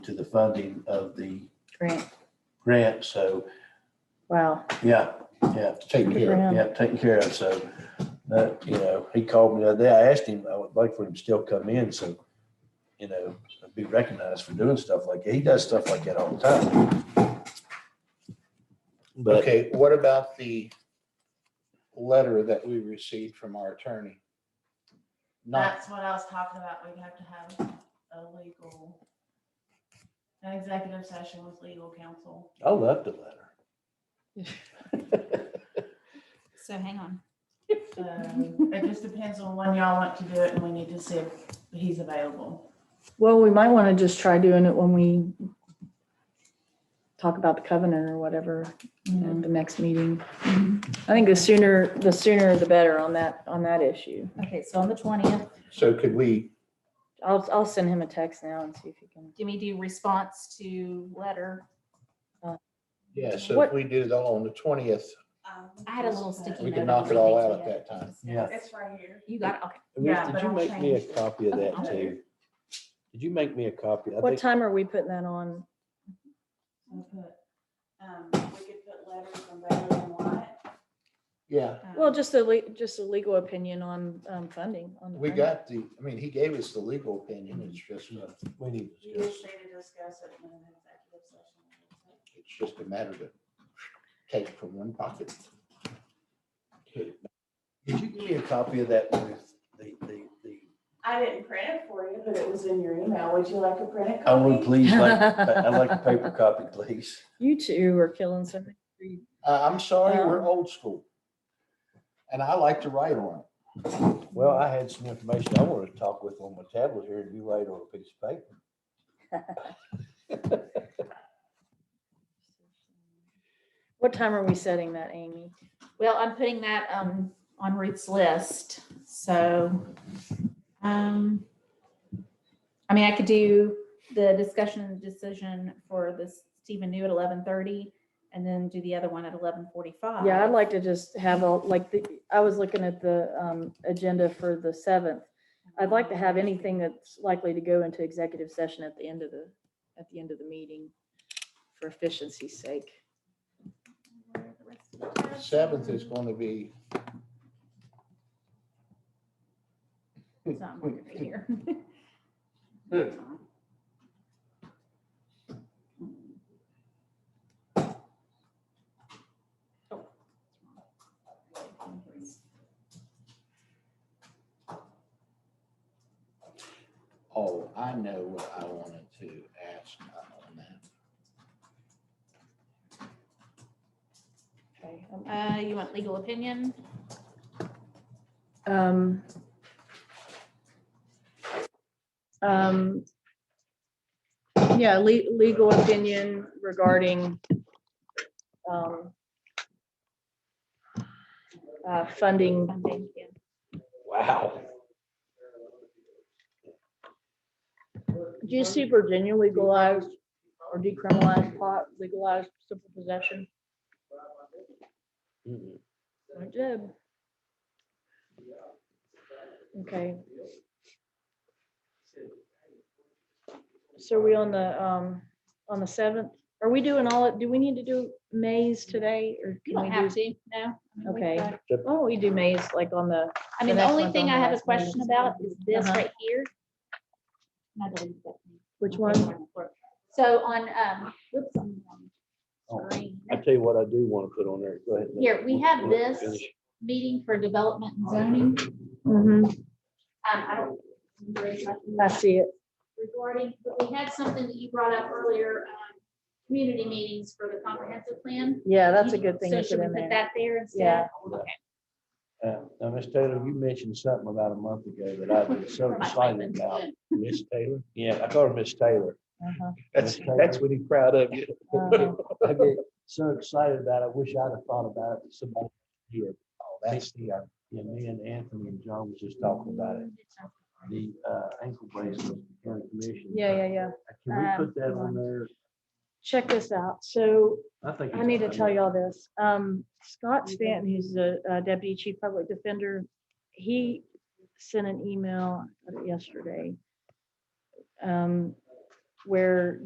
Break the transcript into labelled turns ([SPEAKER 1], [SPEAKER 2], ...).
[SPEAKER 1] to the funding of the
[SPEAKER 2] Grant,
[SPEAKER 1] grant. So,
[SPEAKER 2] wow.
[SPEAKER 1] yeah, yeah,
[SPEAKER 3] Take
[SPEAKER 2] Good for
[SPEAKER 3] care.
[SPEAKER 2] him.
[SPEAKER 1] yeah, taken care of. So that, you know, he called me the other day. I asked him, I would like for him to still come in. So, you know, be recognized for doing stuff like, he does stuff like that all the time. But
[SPEAKER 3] Okay, what about the letter that we received from our attorney? Not,
[SPEAKER 4] That's what I was talking about. We'd have to have a legal, an executive session with legal counsel.
[SPEAKER 1] I love the letter.
[SPEAKER 5] So hang on.
[SPEAKER 4] Um, It just depends on when y'all want to do it and we need to see if he's available.
[SPEAKER 2] Well, we might want to just try doing it when we talk about the covenant or whatever
[SPEAKER 4] Mm-hmm.
[SPEAKER 2] at the next meeting. I think the sooner, the sooner the better on that, on that issue.
[SPEAKER 5] Okay, so on the twentieth,
[SPEAKER 3] so could we,
[SPEAKER 2] I'll, I'll send him a text now and see if he can.
[SPEAKER 5] Jimmy, do response to letter.
[SPEAKER 3] yeah, so if
[SPEAKER 2] What-
[SPEAKER 3] we do that on the twentieth,
[SPEAKER 4] Um,
[SPEAKER 5] I had a little sticky
[SPEAKER 3] We
[SPEAKER 5] note.
[SPEAKER 3] can
[SPEAKER 5] I
[SPEAKER 3] knock it
[SPEAKER 5] wanted
[SPEAKER 3] all
[SPEAKER 5] to
[SPEAKER 3] out at
[SPEAKER 5] get.
[SPEAKER 3] that time.
[SPEAKER 1] Yeah.
[SPEAKER 4] It's right here.
[SPEAKER 5] You got, it, okay.
[SPEAKER 1] Reese,
[SPEAKER 4] Yeah,
[SPEAKER 1] did
[SPEAKER 4] but
[SPEAKER 1] you
[SPEAKER 4] I'll
[SPEAKER 1] make me a
[SPEAKER 4] change
[SPEAKER 1] copy of that
[SPEAKER 4] Okay.
[SPEAKER 1] too? Did you make me a copy? I
[SPEAKER 2] What
[SPEAKER 1] think-
[SPEAKER 2] time are we putting that on?
[SPEAKER 4] We'll put, um, We could put letters from Baylor and Wyatt.
[SPEAKER 3] Yeah,
[SPEAKER 2] Well,
[SPEAKER 5] Um,
[SPEAKER 2] just a, le- just a legal opinion on um, funding. on the
[SPEAKER 3] we
[SPEAKER 2] funding.
[SPEAKER 3] got the, I mean, he gave us the legal opinion, it's just, a-
[SPEAKER 1] We need to
[SPEAKER 4] You
[SPEAKER 1] discuss.
[SPEAKER 4] just need to discuss it in an executive session.
[SPEAKER 3] it's just a matter to take from one pocket.
[SPEAKER 1] Did you give me a copy of that with the, the, the,
[SPEAKER 4] I didn't print it for you, but it was in your email. Would you like a printed
[SPEAKER 1] I would
[SPEAKER 4] copy?
[SPEAKER 1] please like, I- I'd like a paper copy, please.
[SPEAKER 2] You two are killing so many trees.
[SPEAKER 3] Uh, I'm sorry, we're
[SPEAKER 2] Um.
[SPEAKER 3] old school. And I like to write on it.
[SPEAKER 1] Well, I had some information I wanted to talk with on my tablet here and you write on a piece of paper.
[SPEAKER 2] What time are we setting that, Amy?
[SPEAKER 5] Well, I'm putting that um on Ruth's list, so. um I mean, I could do the discussion and decision for this Stephen New at eleven thirty and then do the other one at eleven forty-five.
[SPEAKER 2] Yeah, I'd like to just have all, like, the I was looking at the um, agenda for the seventh. I'd like to have anything that's likely to go into executive session at the end of the, at the end of the meeting for efficiency's sake.
[SPEAKER 3] Seventh is going to be,
[SPEAKER 5] It's not moving here.
[SPEAKER 3] oh, I know what I wanted to ask on that.
[SPEAKER 2] Okay.
[SPEAKER 5] Uh, you want legal opinion?
[SPEAKER 2] Um. um, Yeah, le- legal opinion regarding um, uh, funding
[SPEAKER 5] Funding, yeah.
[SPEAKER 1] Wow.
[SPEAKER 2] Do you see Virginia legalized or decriminalized pot, legalized simple possession? I did. Okay. So are we on the, um, on the seventh, are we doing all, do we need to do Mays today or?
[SPEAKER 5] You
[SPEAKER 2] can
[SPEAKER 5] don't
[SPEAKER 2] we do-
[SPEAKER 5] have to, no. I mean, we
[SPEAKER 2] Okay.
[SPEAKER 5] could.
[SPEAKER 2] Why don't we do Mays like on the,
[SPEAKER 5] I mean, the
[SPEAKER 2] next
[SPEAKER 5] only
[SPEAKER 2] one's
[SPEAKER 5] thing
[SPEAKER 2] on
[SPEAKER 5] I
[SPEAKER 2] the
[SPEAKER 5] have a
[SPEAKER 2] last one.
[SPEAKER 5] question about is this
[SPEAKER 2] Uh-huh.
[SPEAKER 5] right here. And I believe that-
[SPEAKER 2] which one?
[SPEAKER 5] So on, um, whoops, I'm on screen.
[SPEAKER 6] I tell you what I do want to put on there. Go ahead. Nick.
[SPEAKER 5] Here, we have this
[SPEAKER 6] Finish.
[SPEAKER 5] meeting for development and zoning. Um,
[SPEAKER 2] Mhm,
[SPEAKER 5] I don't. remember exactly
[SPEAKER 2] I see it.
[SPEAKER 5] Regarding, but we had something that you brought up earlier, um, community meetings for the comprehensive plan.
[SPEAKER 2] Yeah, that's a good thing
[SPEAKER 5] So
[SPEAKER 2] to put
[SPEAKER 5] should we
[SPEAKER 2] in
[SPEAKER 5] put
[SPEAKER 2] there.
[SPEAKER 5] that there
[SPEAKER 2] Yeah.
[SPEAKER 5] instead? Okay.
[SPEAKER 1] Uh, Now, Miss Taylor, you mentioned something about a month ago that I was so excited about.
[SPEAKER 6] Miss Taylor.
[SPEAKER 1] Yeah, I called her Miss Taylor.
[SPEAKER 2] Uh-huh,
[SPEAKER 6] That's, that's what he's proud of. you.
[SPEAKER 2] uh-huh.
[SPEAKER 1] I get so excited about it. I wish I'd have thought about it. Somebody here. Oh, that's the, uh, yeah, me and Anthony and John was just talking about it. The uh, ankle bracelet, county commission.
[SPEAKER 2] Yeah, yeah, yeah.
[SPEAKER 1] Can we
[SPEAKER 2] Um,
[SPEAKER 1] put that on there?
[SPEAKER 2] Check this out. So
[SPEAKER 1] I think.
[SPEAKER 2] I
[SPEAKER 1] it's
[SPEAKER 2] need to
[SPEAKER 1] fine.
[SPEAKER 2] tell y'all this. Um, Scott Stanton, who's the uh, deputy chief public defender, he sent an email yesterday um, where